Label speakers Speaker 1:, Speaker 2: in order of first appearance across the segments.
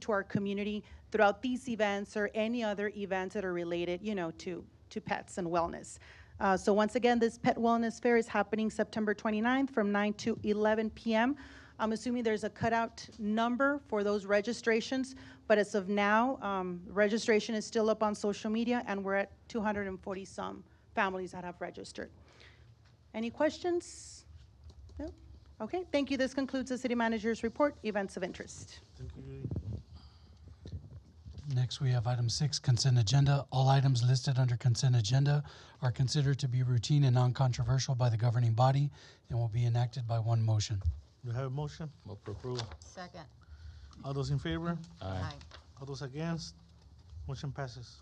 Speaker 1: to our community throughout these events or any other events that are related, you know, to, to pets and wellness. Uh, So once again, this Pet Wellness Fair is happening September 29th from 9 to 11 PM. I'm assuming there's a cutout number for those registrations, but as of now, um, registration is still up on social media, and we're at 240-some families that have registered. Any questions? No? Okay, thank you. This concludes the city manager's report, events of interest.
Speaker 2: Next, we have item six, consent agenda. All items listed under consent agenda are considered to be routine and non-controversial by the governing body and will be enacted by one motion.
Speaker 3: Do you have a motion?
Speaker 4: Move for approval.
Speaker 5: Second.
Speaker 3: All those in favor?
Speaker 4: Aye.
Speaker 3: All those against? Motion passes.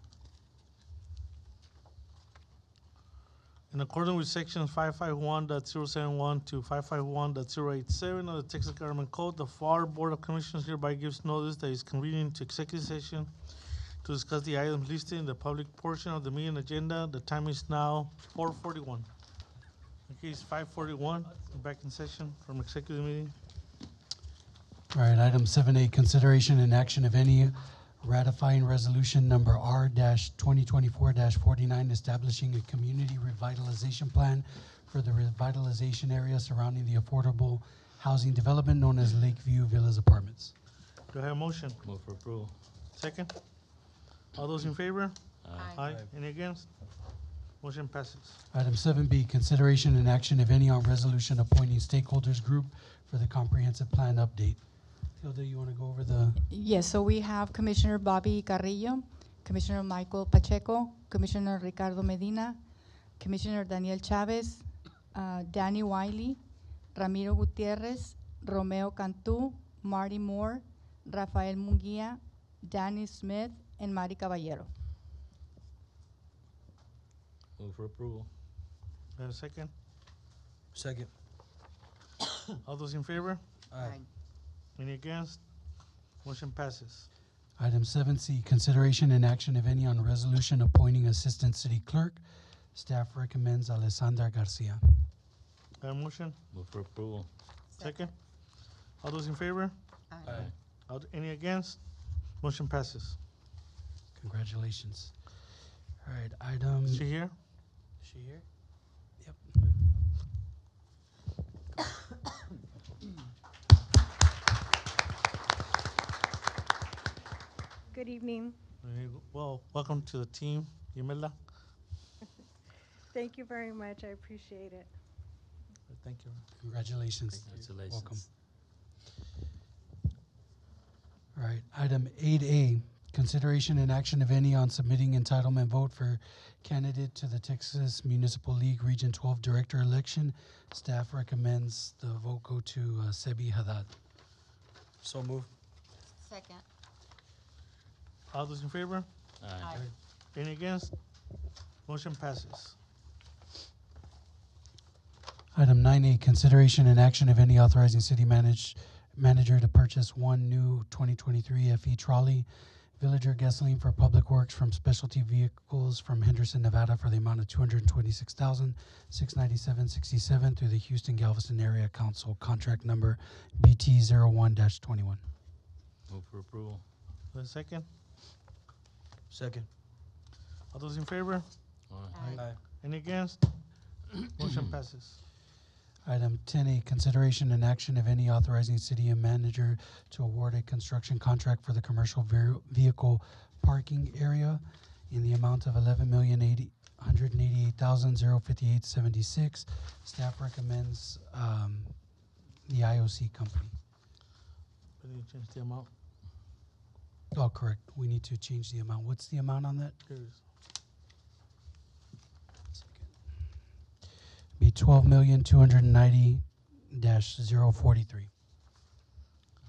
Speaker 3: In accordance with sections 551.071 to 551.087 of the Texas Government Code, the FAR Board of Commissioners hereby gives notice that it's convening to executive session to discuss the items listed in the public portion of the meeting agenda. The time is now four forty-one. Okay, it's five forty-one, back in session from executive meeting.
Speaker 2: All right, item seven A, consideration and action, of any, ratifying resolution number R twenty twenty-four forty-nine, establishing a community revitalization plan for the revitalization area surrounding the affordable housing development known as Lakeview Villas Apartments.
Speaker 3: Do I have a motion?
Speaker 4: Move for approval.
Speaker 3: Second. All those in favor?
Speaker 5: Aye.
Speaker 3: Aye. Any against? Motion passes.
Speaker 2: Item seven B, consideration and action, of any, on resolution appointing stakeholders group for the comprehensive plan update. Hilda, you want to go over the,
Speaker 6: Yes, so we have Commissioner Bobby Carrillo, Commissioner Michael Pacheco, Commissioner Ricardo Medina, Commissioner Daniel Chavez, uh, Danny Wiley, Ramiro Gutierrez, Romeo Cantu, Marty Moore, Rafael Munguia, Danny Smith, and Mari Caballero.
Speaker 4: Move for approval.
Speaker 3: Do I have a second?
Speaker 7: Second.
Speaker 3: All those in favor?
Speaker 7: Aye.
Speaker 3: Any against? Motion passes.
Speaker 2: item seven C, consideration and action, of any, on resolution appointing assistant city clerk. Staff recommends Alessandra Garcia.
Speaker 3: Do I have a motion?
Speaker 4: Move for approval.
Speaker 3: Second. All those in favor?
Speaker 5: Aye.
Speaker 3: All th- Any against? Motion passes.
Speaker 2: Congratulations. All right, item.
Speaker 3: Is she here?
Speaker 2: she here? Yep.
Speaker 8: Good evening.
Speaker 3: There you go. Well, welcome to the team, Yamela.
Speaker 8: Thank you very much. I appreciate it.
Speaker 3: Thank you.
Speaker 2: Congratulations. Welcome.
Speaker 4: Congratulations.
Speaker 2: All right, item eight A, consideration and action, of any, on submitting entitlement vote for candidate to the Texas Municipal League Region Twelve Director election. Staff recommends the vote go to uh, Sebi Haddad.
Speaker 7: So move.
Speaker 5: Second.
Speaker 3: All those in favor?
Speaker 4: Aye.
Speaker 3: Any against? Motion passes.
Speaker 2: Item nine A, consideration and action, of any, authorizing city manage, manager to purchase one new twenty twenty-three FE trolley, Villager gasoline for public works from specialty vehicles from Henderson, Nevada for the amount of two hundred and twenty-six thousand, six ninety-seven sixty-seven through the Houston Galveston Area Council contract number BT zero one dash twenty-one.
Speaker 4: Move for approval.
Speaker 3: Do I have a second?
Speaker 7: Second.
Speaker 3: All those in favor?
Speaker 4: Aye.
Speaker 7: Aye.
Speaker 3: Any against? Motion passes.
Speaker 2: Item ten A, consideration and action, of any, authorizing city and manager to award a construction contract for the commercial ver- vehicle parking area in the amount of eleven million eighty, hundred and eighty-eight thousand, zero fifty-eight seventy-six. Staff recommends, um, the IOC company.
Speaker 3: We need to change the amount.
Speaker 2: Oh, correct, we need to change the amount. What's the amount on that?
Speaker 3: Here it is.
Speaker 2: Be twelve million, two hundred and ninety dash zero forty-three.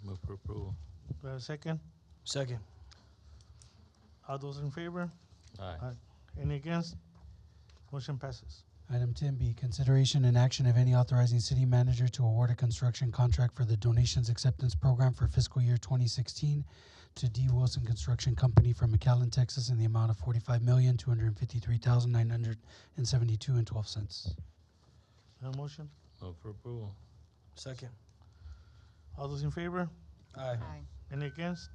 Speaker 4: Move for approval.
Speaker 3: Do I have a second?
Speaker 7: Second.
Speaker 3: All those in favor?
Speaker 4: Aye.
Speaker 3: Any against? Motion passes.
Speaker 2: Item ten B, consideration and action, of any, authorizing city manager to award a construction contract for the donations acceptance program for fiscal year twenty sixteen to D Wilson Construction Company from McAllen, Texas, in the amount of forty-five million, two hundred and fifty-three thousand, nine hundred and seventy-two and twelve cents.
Speaker 3: No motion?
Speaker 4: Move for approval.
Speaker 7: Second.
Speaker 3: All those in favor?
Speaker 7: Aye.
Speaker 5: Aye.
Speaker 3: Any against?